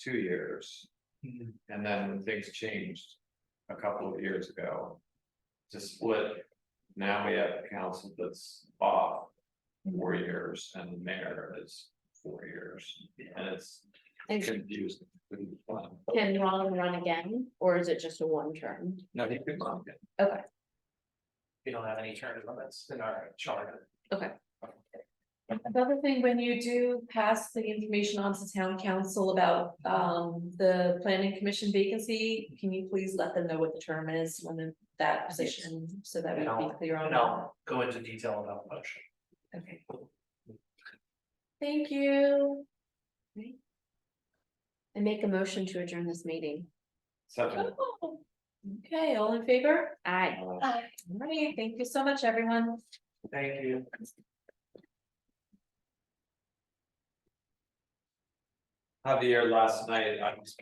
two years. And then when things changed a couple of years ago. To split, now we have a council that's off four years and the mayor is four years and it's And confusing. can Rollin run again, or is it just a one term? No, he could not get. Okay, We don't have any term limits in our charter. Another thing, when you do pass the information on to town council about um the planning commission vacancy, can you please let them know what the term is when the- that position, so that we can be clear on And that? I'll go into detail about the motion. Okay. Thank you. I make a motion to adjourn this meeting. Second. Oh, Okay, all in favor? Aye. uh, All right, thank you so much, everyone. Thank you. Javier last night, I was